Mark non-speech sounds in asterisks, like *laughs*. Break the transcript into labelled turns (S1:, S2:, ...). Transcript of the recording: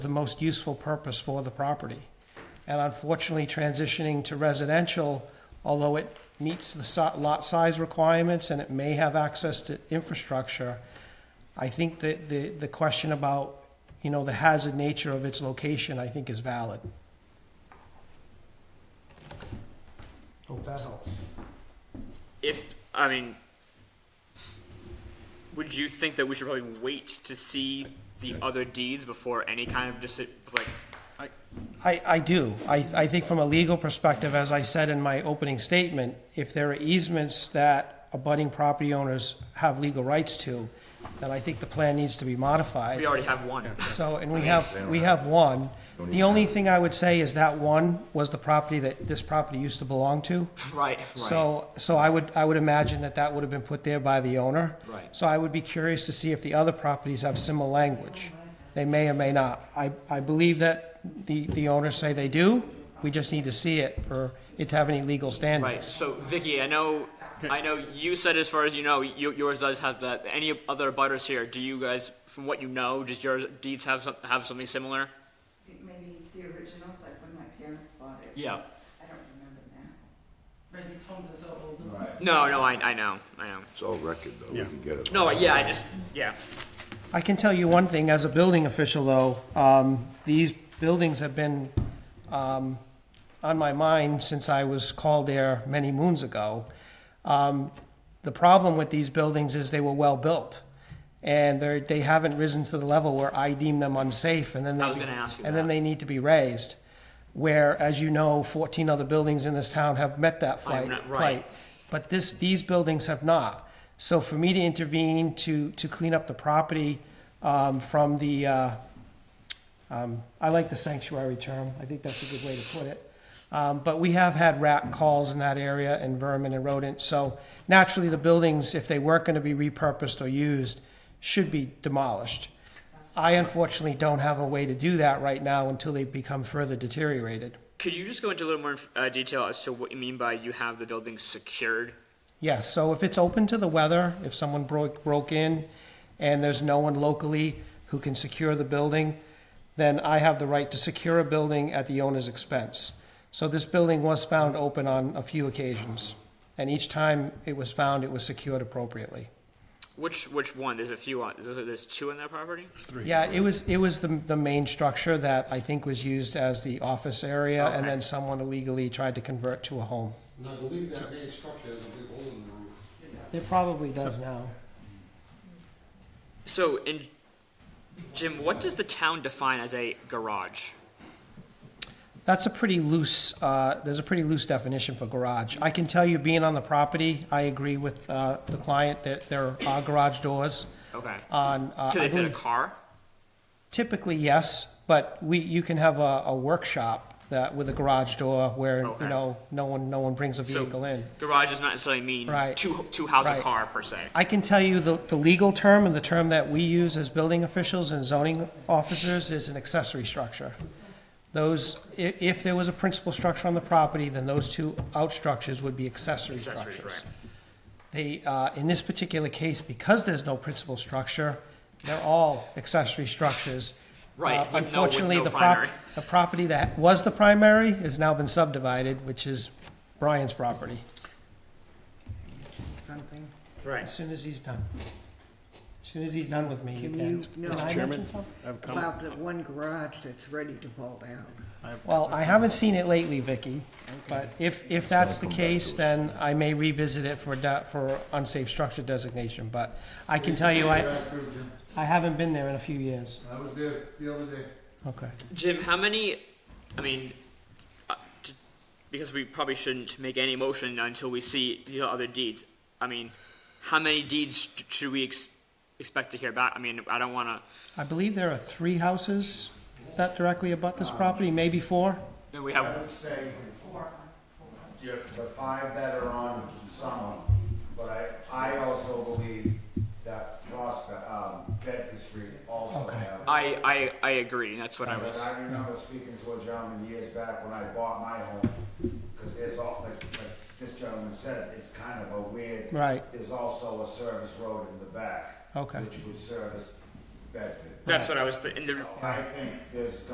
S1: the most useful purpose for the property. And unfortunately, transitioning to residential, although it meets the so- lot size requirements and it may have access to infrastructure, I think that the, the question about, you know, the hazard nature of its location, I think is valid.
S2: Hope that helps.
S3: If I mean, would you think that we should probably wait to see the other deeds before any kind of deci- like?
S1: I, I do. I, I think from a legal perspective, as I said in my opening statement, if there are easements that abutting property owners have legal rights to, then I think the plan needs to be modified.
S3: We already have one.
S1: So, and we have, we have one. The only thing I would say is that one was the property that this property used to belong to.
S3: *laughs* right. Right.
S1: So, so I would, I would imagine that that would have been put there by the owner.
S3: Right.
S1: So I would be curious to see if the other properties have similar language. They may or may not. I, I believe that the, the owners say they do. We just need to see it for it to have any legal
S3: Right.
S1: standing.
S3: So Vicky, I know, I know you said as far as you know, you, yours does have that. Any other butters here? Do you guys, from what you know, does your deeds have some, have something similar?
S4: Maybe the originals, like when my parents bought it.
S3: Yeah.
S4: I don't remember now.
S5: Right, these homes are so old.
S3: No, no, I, I know, I know.
S6: It's all record, though, we can get it.
S3: No, yeah, I just, yeah.
S1: I can tell you one thing, as a building official though, um, these buildings have been, um, on my mind since I was called there many moons ago. Um, the problem with these buildings is they were well-built. And they're, they haven't risen to the level where I deem them unsafe and then they.
S3: I was gonna ask you
S1: And then
S3: that.
S1: they need to be raised. Where, as you know, fourteen other buildings in this town have met that
S3: I'm
S1: flight.
S3: not- right.
S1: plight. But this, these buildings have not. So for me to intervene to, to clean up the property, um, from the, uh, I like the sanctuary term. I think that's a good way to put it. Um, but we have had rat calls in that area and vermin and rodents. So naturally, the buildings, if they weren't going to be repurposed or used, should be demolished. I unfortunately don't have a way to do that right now until they become further deteriorated.
S3: Could you just go into a little more uh, detail as to what you mean by you have the building secured?
S1: Yes, so if it's open to the weather, if someone broke, broke in and there's no one locally who can secure the building, then I have the right to secure a building at the owner's expense. So this building was found open on a few occasions, and each time it was found, it was secured appropriately.
S3: Which which one? There's a few on. There's, there's two on that property.
S1: Yeah, it was, it was the, the main structure that I think was used as the office area, and then someone illegally tried to convert to a home.
S7: And I believe that main structure has a big hole in the roof.
S1: It probably does now.
S3: So, in Jim, what does the town define as a garage?
S1: That's a pretty loose, uh, there's a pretty loose definition for garage. I can tell you, being on the property, I agree with, uh, the client that there are garage doors
S3: Okay.
S1: on, uh,
S3: Could
S1: I
S3: they fit a
S1: believe
S3: car?
S1: typically, yes, but we, you can have a, a workshop that, with a garage door where, you
S3: Okay.
S1: know, no one, no one brings a
S3: So-
S1: vehicle in.
S3: Garage does not necessarily mean
S1: Right.
S3: two two house
S1: Right.
S3: a car per se.
S1: I can tell you the, the legal term and the term that we use as building officials and zoning officers is an accessory structure. Those, i- if there was a principal structure on the property, then those two outstructures would be accessory
S3: Accessories,
S1: structures. They, uh, in this particular case, because there's no principal structure, they're all accessory structures.
S3: Right,
S1: Uh,
S3: with no- with
S1: Unfortunately,
S3: no
S1: the prop,
S3: primary.
S1: the property that was the primary has now been subdivided, which is Brian's property,
S5: Something.
S3: Right.
S1: as soon as he's done. As soon as he's done with me, you
S5: Can
S1: can.
S5: you- no.
S1: Can I mention
S5: Chairman?
S1: something?
S5: About the one garage that's ready to fall down.
S1: Well, I haven't seen it lately, Vicky, but if, if that's the case, then I may revisit it for, da- for unsafe structure designation, but I can tell you, I,
S7: Back through, Jim.
S1: I haven't been there in a few years.
S7: I was there the other day.
S1: Okay.
S3: Jim, how many? I mean, uh, t- because we probably shouldn't make any motion until we see the other deeds. I mean, how many deeds t- should we ex- expect to hear back? I mean, I don't want to.
S1: I believe there are three houses that directly abut this property, maybe four?
S3: Then we have
S8: I would say you have the five that are on Summer, but I, I also believe that Prospect, um, Bedford Street also have.
S3: I, I, I agree, and that's what I
S8: But
S3: was.
S8: I remember speaking to a gentleman years back when I bought my home, because there's all, like, like this gentleman said, it's kind of a weird.
S1: Right.
S8: There's also a service road in the back.
S1: Okay.
S8: Which would service Bedford.
S3: That's what I was, th- and the,
S8: I think there's